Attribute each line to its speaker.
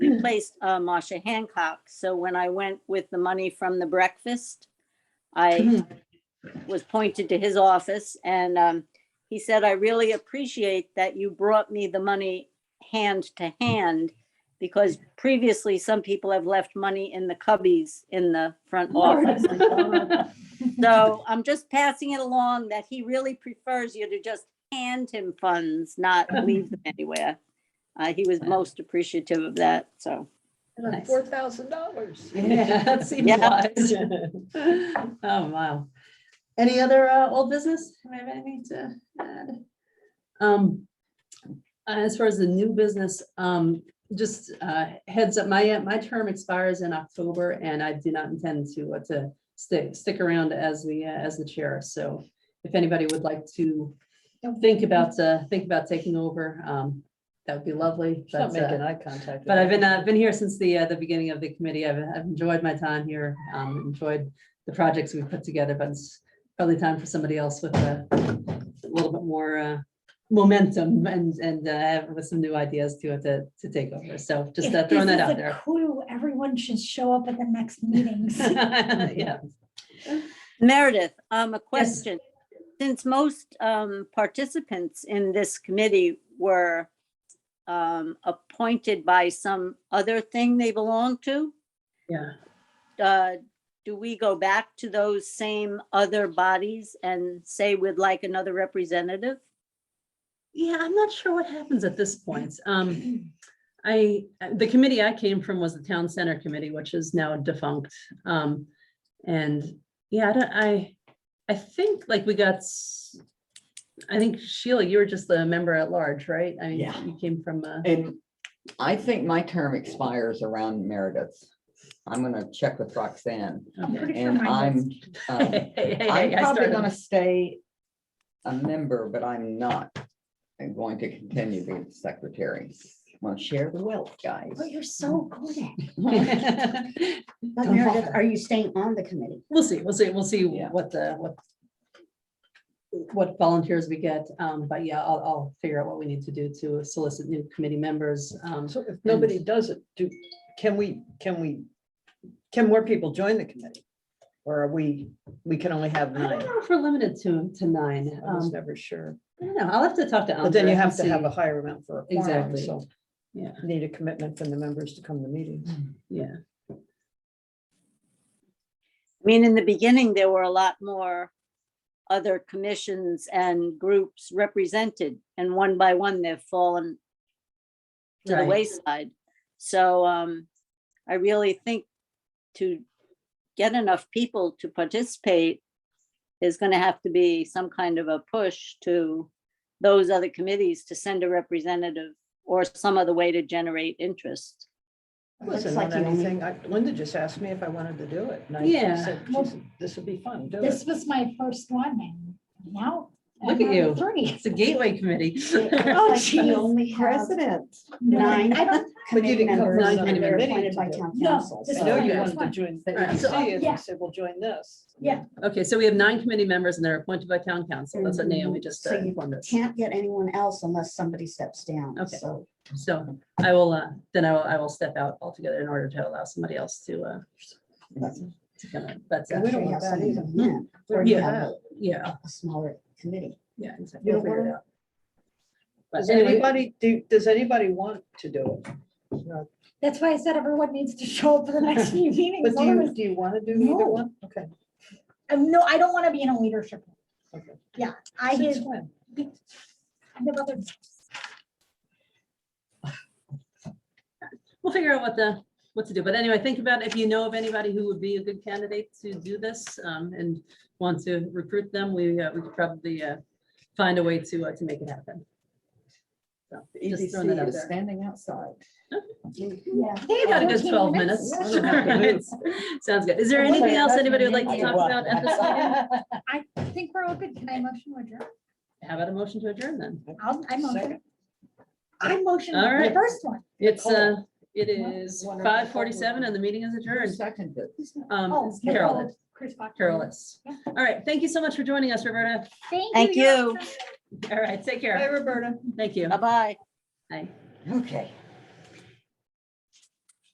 Speaker 1: replaced uh, Masha Hancock. So when I went with the money from the breakfast, I was pointed to his office and um, he said, I really appreciate that you brought me the money hand to hand because previously some people have left money in the cubbies in the front office. So I'm just passing it along that he really prefers you to just hand him funds, not leave them anywhere. Uh, he was most appreciative of that, so. Nice.
Speaker 2: Four thousand dollars.
Speaker 3: Yeah, that seems
Speaker 1: Yeah.
Speaker 3: wise. Oh, wow. Any other uh, old business? Do we have anything to add? Um, As far as the new business, um, just uh, heads up, my, uh, my term expires in October and I do not intend to, uh, to stick, stick around as the, uh, as the chair. So if anybody would like to think about, uh, think about taking over, um, that would be lovely.
Speaker 2: She's not
Speaker 3: but, uh,
Speaker 2: making eye contact. with
Speaker 3: But I've been,
Speaker 2: me.
Speaker 3: uh, been here since the, uh, the beginning of the committee. I've, I've enjoyed my time here, um, enjoyed the projects we've put together, but it's probably time for somebody else with a little bit more, uh, momentum and, and, uh, with some new ideas to, to, to take over. So just
Speaker 4: If
Speaker 3: uh, throwing
Speaker 4: this
Speaker 3: that out
Speaker 4: is a
Speaker 3: there.
Speaker 4: Clue, everyone should show up at the next meetings.
Speaker 3: Yeah,
Speaker 1: Meredith, um, a question. Since most, um, participants in this committee were, um, appointed by some other thing they belong to,
Speaker 3: yeah.
Speaker 1: uh, do we go back to those same other bodies and say we'd like another representative?
Speaker 3: Yeah, I'm not sure what happens at this point. Um, I, the committee I came from was the Town Center Committee, which is now defunct. Um, and yeah, I don't, I, I think like we got, s- I think Sheila, you were just the member at large, right? I mean,
Speaker 5: Yeah.
Speaker 3: you came from, uh,
Speaker 5: And I think my term expires around Meredith's. I'm gonna check with Roxanne.
Speaker 4: I'm pretty sure
Speaker 5: And
Speaker 4: mine does.
Speaker 5: I'm, um, I'm probably gonna stay a member, but I'm not. I'm going to continue being secretary. Well, share the wealth, guys.
Speaker 3: Oh,
Speaker 6: Well, you're so good at it.
Speaker 3: gonna.
Speaker 6: But
Speaker 5: Don't
Speaker 6: Meredith,
Speaker 5: bother.
Speaker 6: are you staying on the committee?
Speaker 3: We'll see, we'll see, we'll see
Speaker 5: Yeah.
Speaker 3: what the, what. What volunteers we get, um, but yeah, I'll, I'll figure out what we need to do to solicit new committee members, um.
Speaker 2: So if nobody does it, do, can we, can we, can more people join the committee? Or are we, we can only have
Speaker 3: I don't
Speaker 2: nine?
Speaker 3: know if we're limited to, to nine,
Speaker 2: I was
Speaker 3: um,
Speaker 2: never sure.
Speaker 3: I don't know, I'll have to talk to.
Speaker 2: But
Speaker 3: Andre
Speaker 2: then you
Speaker 3: and
Speaker 2: have to
Speaker 3: Um,
Speaker 2: have
Speaker 3: see.
Speaker 2: a higher amount for a quorum,
Speaker 3: Exactly.
Speaker 2: so.
Speaker 3: Yeah.
Speaker 2: Need a commitment from the members to come to meetings.
Speaker 3: Yeah,
Speaker 1: I mean, in the beginning, there were a lot more other commissions and groups represented, and one by one, they've fallen to the
Speaker 3: Right.
Speaker 1: wayside. So um, I really think to get enough people to participate is gonna have to be some kind of a push to those other committees to send a representative or some other way to generate interest.
Speaker 2: It
Speaker 6: Looks
Speaker 2: Wasn't
Speaker 6: like
Speaker 2: on
Speaker 6: you only-
Speaker 2: anything. I- Linda just asked me if I wanted to do it. and I
Speaker 3: Yeah.
Speaker 2: said,
Speaker 6: Well-
Speaker 2: "Geez, This would be fun, do
Speaker 6: This
Speaker 2: it.
Speaker 6: was my first one and now. I'm
Speaker 3: Look at
Speaker 6: on
Speaker 3: you.
Speaker 6: Three.
Speaker 3: it's a gateway committee.
Speaker 6: Oh, geez.
Speaker 2: President.
Speaker 6: Nine.
Speaker 2: But you
Speaker 6: committee
Speaker 2: didn't come
Speaker 6: members
Speaker 2: from
Speaker 3: Nine
Speaker 6: that are
Speaker 3: committee members.
Speaker 2: another committee
Speaker 6: appointed
Speaker 2: to
Speaker 6: by
Speaker 2: do it.
Speaker 6: town
Speaker 4: No,
Speaker 6: council,
Speaker 4: this
Speaker 2: I
Speaker 6: so-
Speaker 2: know you
Speaker 4: Yeah.
Speaker 2: wanted to join the
Speaker 3: All right,
Speaker 2: EDC,
Speaker 3: so I'll-
Speaker 2: and
Speaker 6: yeah.
Speaker 2: you said, well, join this.
Speaker 6: Yeah.
Speaker 3: Okay, so we have nine committee members and they're appointed by town council, that's what Naomi just uh,
Speaker 6: So you
Speaker 3: informed us.
Speaker 6: Can't get anyone else unless somebody steps down,
Speaker 3: Okay.
Speaker 6: so.
Speaker 3: So I will, uh, then I will, I will step out altogether in order to allow somebody else to, uh, to come in, but, uh,
Speaker 2: We don't
Speaker 6: sure you
Speaker 2: want
Speaker 6: have
Speaker 2: that
Speaker 6: somebody
Speaker 2: either.
Speaker 6: come in,
Speaker 2: We
Speaker 6: Or
Speaker 2: don't
Speaker 6: you
Speaker 2: want
Speaker 6: have
Speaker 3: yeah,
Speaker 6: a smaller committee.
Speaker 3: yeah. exactly.
Speaker 2: You
Speaker 3: We'll
Speaker 2: don't
Speaker 3: figure
Speaker 2: want
Speaker 3: it
Speaker 2: to?
Speaker 3: out. But
Speaker 2: Does
Speaker 3: anyway,
Speaker 2: anybody, do, does anybody want to do it? No.
Speaker 4: That's why I said everyone needs to show up for the next few meetings.
Speaker 2: But do you,
Speaker 4: otherwise-
Speaker 2: do you want to do either
Speaker 4: No.
Speaker 2: one? Okay.
Speaker 4: Um, No, I don't want to be in a leadership. role.
Speaker 2: Okay.
Speaker 4: Yeah, I
Speaker 2: Since
Speaker 4: have,
Speaker 2: when?
Speaker 4: I have other,
Speaker 3: we'll figure out what the, what to do, but anyway, think about if you know of anybody who would be a good candidate to do this, um, and want to recruit them, we, uh, we could probably, uh, find a way to, uh, to make it happen. So,
Speaker 5: The
Speaker 3: just throwing that
Speaker 5: EDC
Speaker 3: out
Speaker 5: is
Speaker 3: there.
Speaker 5: standing outside.
Speaker 6: Yeah.
Speaker 3: I think about a good
Speaker 4: 14
Speaker 3: twelve minutes.
Speaker 4: minutes.
Speaker 3: Sounds good. Is there
Speaker 2: Unless I
Speaker 3: anything else
Speaker 2: cut
Speaker 3: anybody would
Speaker 2: my
Speaker 3: like to
Speaker 2: name
Speaker 3: talk
Speaker 2: out.
Speaker 3: about at this meeting?
Speaker 4: I think we're all good. Can I motion to adjourn?
Speaker 3: How about a motion to adjourn then?
Speaker 4: I'll, I motion.
Speaker 2: Second.
Speaker 4: I motion
Speaker 3: All
Speaker 4: the
Speaker 3: right.
Speaker 4: first one.
Speaker 3: It's, uh, it
Speaker 5: Well,
Speaker 3: is
Speaker 5: wonderful.
Speaker 3: five forty-seven and the meeting is
Speaker 5: Who
Speaker 3: adjourned.
Speaker 5: seconded it?
Speaker 4: Oh,
Speaker 3: Um,
Speaker 4: Nicole,
Speaker 3: Carol, did.
Speaker 4: Chris Fox.
Speaker 3: Carol is.
Speaker 4: Yeah.
Speaker 3: All right. Thank you so much for joining us, Roberta.
Speaker 1: Thank
Speaker 4: you're
Speaker 1: you.
Speaker 4: welcome.
Speaker 3: All right. Take
Speaker 2: Hi,
Speaker 3: care.
Speaker 2: Roberta.
Speaker 3: Thank you.
Speaker 1: Bye-bye.
Speaker 3: Bye.
Speaker 5: Okay.